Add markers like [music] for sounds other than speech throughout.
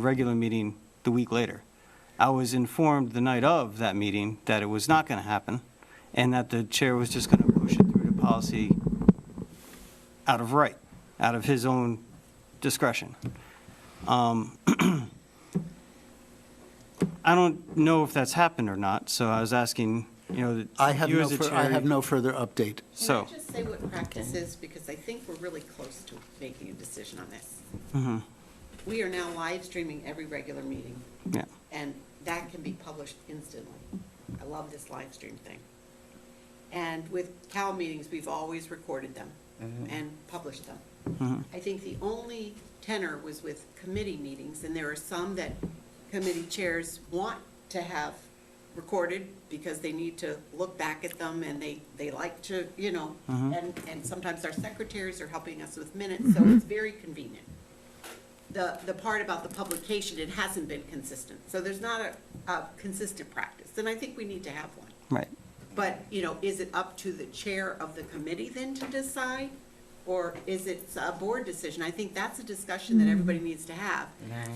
the regular meeting the week later. I was informed the night of that meeting that it was not going to happen, and that the chair was just going to push it through to policy out of right, out of his own discretion. Um, [clears throat] I don't know if that's happened or not, so I was asking, you know, that I have you no, as a fur- I chair- have no further update. Can I So, just say what practice is, because I think we're really close to making a decision on this. mhm, We are now live streaming every regular meeting, yeah, and that can be published instantly. I love this live stream thing. And with Cal meetings, we've always recorded them and published them. mhm, I think the only tenor was with committee meetings, and there are some that committee chairs want to have recorded because they need to look back at them and they, they like to, you know, and, and sometimes our secretaries are helping us with minutes, so it's very convenient. The, the part about the publication, it hasn't been consistent, so there's not a, a consistent practice, and I think we need to have one. right. But, you know, is it up to the chair of the committee then to decide? Or is it a board decision? I think that's a discussion that everybody needs to have.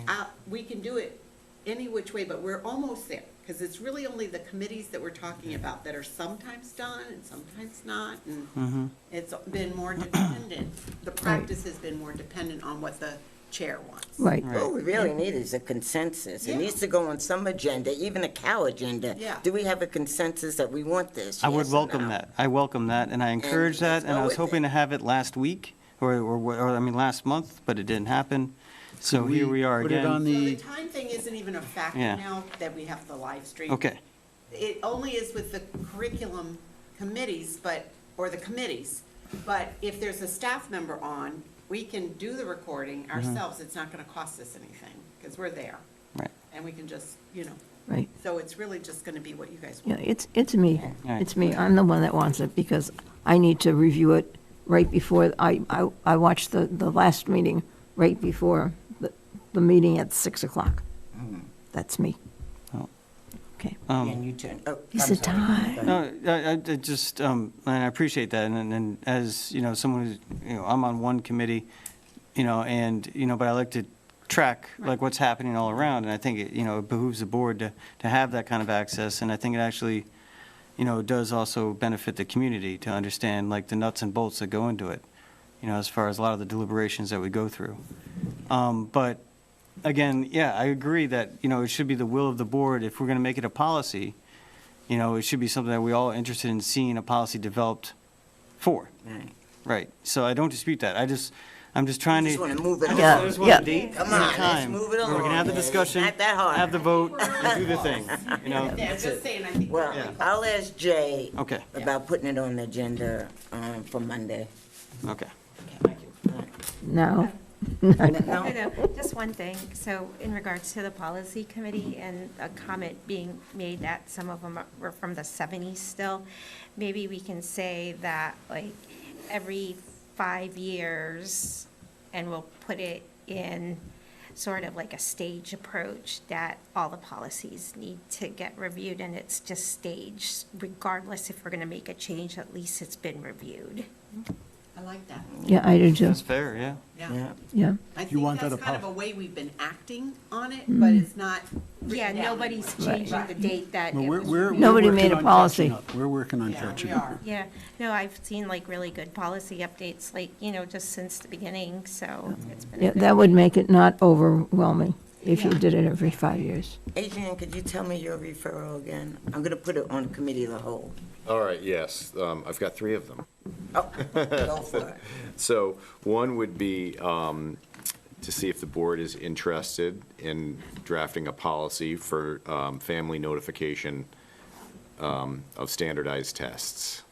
Uh, we can do it any which way, but we're almost there, because it's really only the committees that we're talking about that are sometimes done and sometimes not, and it's been more dependent, the practice has been more dependent on what the chair wants. Right. Right. What we really need is a consensus. It Yeah. needs to go on some agenda, even a cow agenda. Yeah. Do we have a consensus that we want this? I would yes or welcome no? that. I welcome that, and I encourage that, let's and I go was with hoping it. to have it last week, or, or, or, I mean, last month, but it didn't happen. So Could here we are Put it on again. So the the, time thing isn't even a factor Yeah. now that we have the live stream. Okay, it only is with the curriculum committees, but, or the committees. But if there's a staff member on, we can do the recording Mm-hmm. ourselves. It's not gonna cost us anything, because we're there. right. And we can just, you know, Right, so it's really just gonna be what you guys yeah, want. it's, it's me. All right. It's me, I'm the one that wants it, because I need to review it right before, I, I, I watched the, the last meeting right before the, the meeting at 6 o'clock. That's me. Hmm. Oh. Okay. And you turn, oh. Piece I'm of sorry. time. Go ahead. Um, No, I, I I just, um, and I appreciate that, and, and as, you know, someone who's, you know, I'm on one committee, you know, and, you know, but I like to track, like, what's happening all around, and I think, it you know, it behooves the board to, to have that kind of access, and I think it actually, you know, does also benefit the community to understand, like, the nuts and bolts that go into it, you know, as far as a lot of the deliberations that we go through. Um, But, again, yeah, I agree that, you know, it should be the will of the board, if we're going to make it a policy, you know, it should be something that we all are interested in seeing a policy developed for. Right. Right. So I don't dispute that. I just, I'm just trying to. Just wanna move it I just- along. I just want a Yeah. date Come and a on, let's time move it where We can along, have the man. It's discussion, not that hard. have the vote, We're and do the all thing, you [laughs] know? Yeah, I'm just saying, I think. we're Well, really close. I'll ask Jay. Okay. About putting it on the agenda, um, for Monday. Okay. Now, No? No, no, just one thing. So in regards to the policy committee and a comment being made that some of them were from the seventies still, maybe we can say that like every five years, and we'll put it in sort of like a stage approach that all the policies need to get reviewed and it's just staged regardless if we're going to make a change, at least it's been reviewed. I like that, yeah, I do too, That's fair, yeah. yeah. Yeah. yeah. I want that think that's a kind of a pol- way we've been acting on it, but it's not Mm-hmm. Yeah, written down nobody's anywhere. changing the date that it Well, we're- was we're- we're Nobody working made a on catching policy. up. We're working on Yeah, we catching are. up. Yeah, no, I've seen like really good policy updates, like, you know, just since the beginning, so it's been. a Yeah, good- that would make it not overwhelming if you Yeah. did it every five years. Adrian, could you tell me your referral again? I'm gonna put it on committee of the whole. All right, yes, um, I've got three of them. Oh, go for it. So one would be um, to see if the board is interested in drafting a policy for um, family notification um, of standardized tests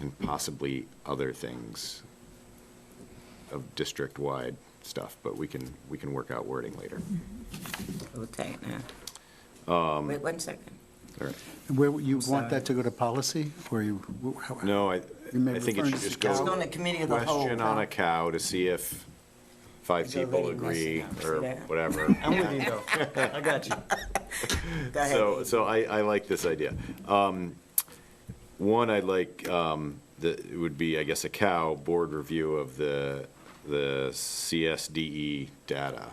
and possibly other things of district-wide stuff, but we can, we can work out wording later. We'll take it now. Um, Wait one second. All right. Where, you want that to go to policy, or you? wh- how- No, I, I You may think it refer should to just the go. It's on the committee of the whole. Question on a cow to see if five It's people already messing agree up, see or that? [laughs] whatever. I'm with you, though. I got you. Go ahead, So, Adrian. so I, I like this idea. Um, One, I like, um, the, it would be, I guess, a cow board review of the, the CSDE E data.